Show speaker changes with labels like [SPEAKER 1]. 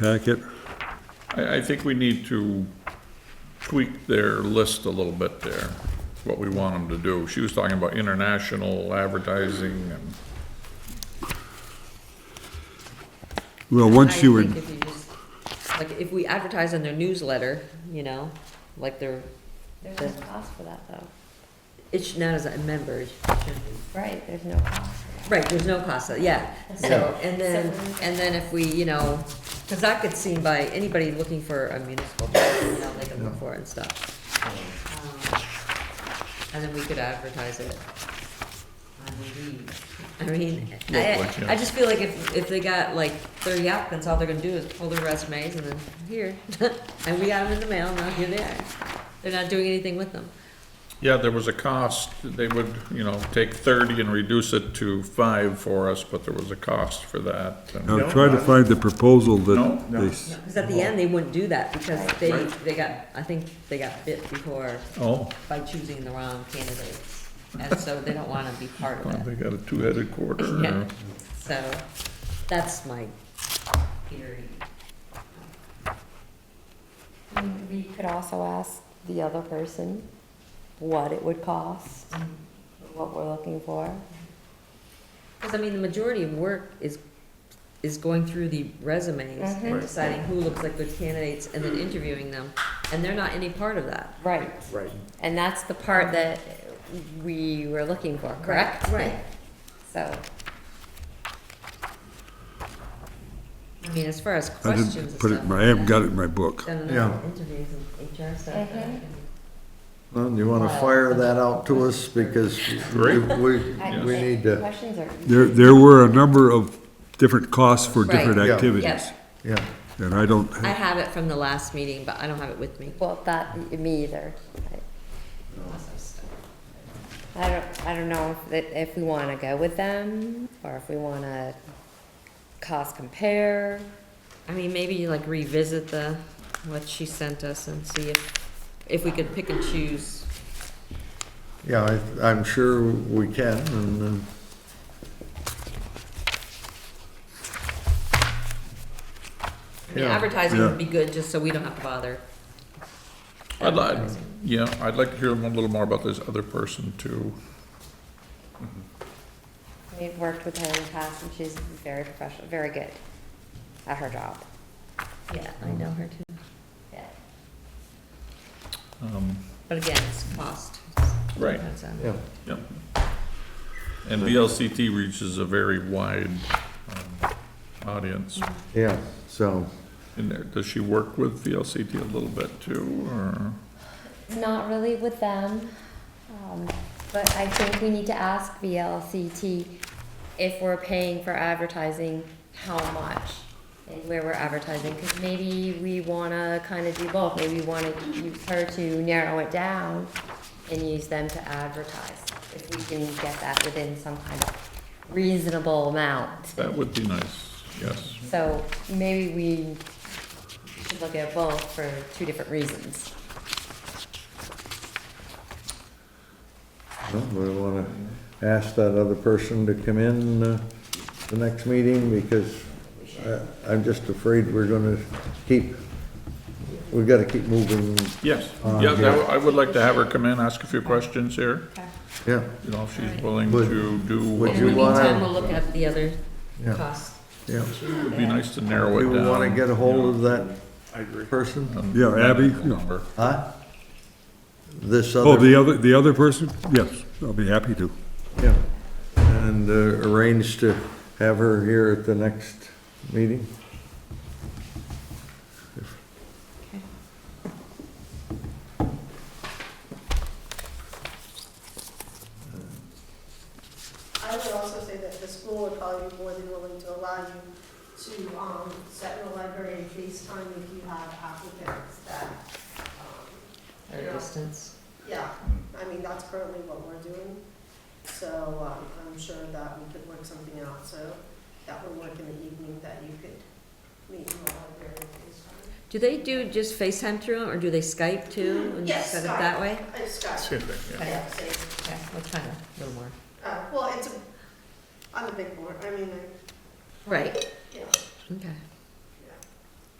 [SPEAKER 1] packet?
[SPEAKER 2] I, I think we need to tweak their list a little bit there, what we want them to do. She was talking about international advertising and,
[SPEAKER 1] Well, once you would,
[SPEAKER 3] I think if you just, like, if we advertise in their newsletter, you know, like they're,
[SPEAKER 4] There's no cost for that though.
[SPEAKER 3] it's not as a member. it should be.
[SPEAKER 4] Right, there's no cost for
[SPEAKER 3] Right, there's no cost, yeah, so, and then,
[SPEAKER 4] So-
[SPEAKER 3] and then if we, you know, cause that gets seen by anybody looking for a municipal, bus, you know, they can look for it and stuff. Um, And then we could advertise it on Indeed. I mean,
[SPEAKER 2] Yeah, like,
[SPEAKER 3] I,
[SPEAKER 2] yeah.
[SPEAKER 3] I just feel like if, if they got like thirty applicants, all they're gonna do is pull their resumes and then, here, and we got them in the mail, now here they are. They're not doing anything with them.
[SPEAKER 2] yeah, there was a cost. They would, you know, take thirty and reduce it to five for us, but there was a cost for that. and-
[SPEAKER 1] I'll try to find the proposal
[SPEAKER 2] No,
[SPEAKER 1] that
[SPEAKER 2] no.
[SPEAKER 1] they, s-
[SPEAKER 3] Because at the end, they wouldn't do that because they, they got, I think they got bit before
[SPEAKER 2] Oh,
[SPEAKER 3] by choosing the wrong candidates. And so they don't want to be part
[SPEAKER 2] well,
[SPEAKER 3] of
[SPEAKER 2] they
[SPEAKER 3] it.
[SPEAKER 2] got a two-headed quarter.
[SPEAKER 3] Yeah.
[SPEAKER 2] or-
[SPEAKER 3] So that's my theory.
[SPEAKER 4] that. We- We could also ask the other person what it would cost,
[SPEAKER 5] Mm-hmm.
[SPEAKER 4] what we're looking for.
[SPEAKER 3] Because I mean, the majority of work is, is going through the resumes and deciding who looks like good candidates and then interviewing them. And they're not any part of that.
[SPEAKER 4] Right. Right. And that's the part that we were looking for, correct?
[SPEAKER 3] Right.
[SPEAKER 4] So,
[SPEAKER 3] I mean, as far as
[SPEAKER 1] I
[SPEAKER 3] questions and
[SPEAKER 1] didn't put it, in
[SPEAKER 3] stuff.
[SPEAKER 1] my- I haven't got it in my book.
[SPEAKER 3] Done
[SPEAKER 5] Yeah.
[SPEAKER 3] enough interviews and HR stuff. that I
[SPEAKER 4] Mhm.
[SPEAKER 3] can-
[SPEAKER 5] Well, you want to fire that out to us because we,
[SPEAKER 2] Great.
[SPEAKER 5] we
[SPEAKER 4] I
[SPEAKER 5] we
[SPEAKER 4] think
[SPEAKER 5] need to,
[SPEAKER 4] questions are.
[SPEAKER 1] There, there were a number of different costs for
[SPEAKER 3] Right.
[SPEAKER 1] different
[SPEAKER 5] Yeah.
[SPEAKER 1] activities.
[SPEAKER 3] Yeah,
[SPEAKER 5] yeah.
[SPEAKER 1] And I don't,
[SPEAKER 3] I have it from the last meeting, but I don't have it with me.
[SPEAKER 4] Well, that, me either. I I don't, I don't know if, that- if we want to go with them or if we want to cost compare.
[SPEAKER 3] I mean, maybe you like revisit the, what she sent us and see if, if we could pick and choose.
[SPEAKER 5] Yeah, I, I'm sure we can, and, uh,
[SPEAKER 3] I mean,
[SPEAKER 5] Yeah.
[SPEAKER 3] advertising
[SPEAKER 1] Yeah.
[SPEAKER 3] would be good, just so we don't have to bother.
[SPEAKER 2] I'd like, yeah, I'd like to hear a little more about this other person too.
[SPEAKER 4] We've worked with her in the past and she's very professional, very good at her job.
[SPEAKER 3] Yeah, I know her too.
[SPEAKER 4] Yeah.
[SPEAKER 2] Um,
[SPEAKER 3] But again, it's cost.
[SPEAKER 2] Right.
[SPEAKER 3] That's, um,
[SPEAKER 5] yeah.
[SPEAKER 2] Yep. And VLCT reaches a very wide um, audience.
[SPEAKER 5] yeah, so,
[SPEAKER 2] And there, does she work with VLCT a little bit too, or?
[SPEAKER 4] Not really with them, um, but I think we need to ask VLCT if we're paying for advertising, how much? And where we're advertising, cause maybe we wanna kinda do both, maybe we wanna use her to narrow it down and use them to advertise, if we can get that within some kind of reasonable amount.
[SPEAKER 2] That would be nice, yes.
[SPEAKER 4] So maybe we should look at both for two different reasons.
[SPEAKER 5] well, we want to ask that other person to come in uh, the next meeting because I, I'm just afraid we're going to keep, we've got to keep moving,
[SPEAKER 2] Yes, yeah,
[SPEAKER 5] Uh, yeah.
[SPEAKER 2] that- I would like to have her come in, ask a few questions here,
[SPEAKER 5] yeah.
[SPEAKER 2] you know, if she's willing
[SPEAKER 5] Would-
[SPEAKER 2] to do what
[SPEAKER 5] would
[SPEAKER 3] In the
[SPEAKER 2] we
[SPEAKER 5] you wanna-
[SPEAKER 2] want.
[SPEAKER 3] meantime, we'll look at the other
[SPEAKER 5] Yeah.
[SPEAKER 3] costs.
[SPEAKER 5] Yeah.
[SPEAKER 2] It would be nice to narrow it
[SPEAKER 5] You
[SPEAKER 2] down.
[SPEAKER 5] want to get a hold of that
[SPEAKER 2] I agree.
[SPEAKER 5] person,
[SPEAKER 1] Yeah, Abby, yeah.
[SPEAKER 2] Number.
[SPEAKER 5] huh? This other.
[SPEAKER 1] oh, the other, the other person? Yes, I'll be happy to.
[SPEAKER 5] Yeah, and uh, arrange to have her here at the next meeting.
[SPEAKER 6] I would also say that the school would probably be more than willing to allow you to, um, set in a library and FaceTime if you have applicants that, um,
[SPEAKER 3] Or
[SPEAKER 6] Yeah.
[SPEAKER 3] distance.
[SPEAKER 6] yeah, I mean, that's currently what we're doing. So, um, I'm sure that we could work something out, so that would work in the evening, that you could meet in the library and FaceTime.
[SPEAKER 3] Do they do just FaceTime through them, or do they Skype too? and
[SPEAKER 6] Yes,
[SPEAKER 3] Set up
[SPEAKER 6] Skype.
[SPEAKER 3] that way?
[SPEAKER 6] I just got,
[SPEAKER 2] Same thing, yeah.
[SPEAKER 6] yeah, same.
[SPEAKER 3] Okay, that's kind of a little more.
[SPEAKER 6] Uh, well, it's a, I'm a big board, I mean, I,
[SPEAKER 3] Right,
[SPEAKER 6] you know,
[SPEAKER 3] okay.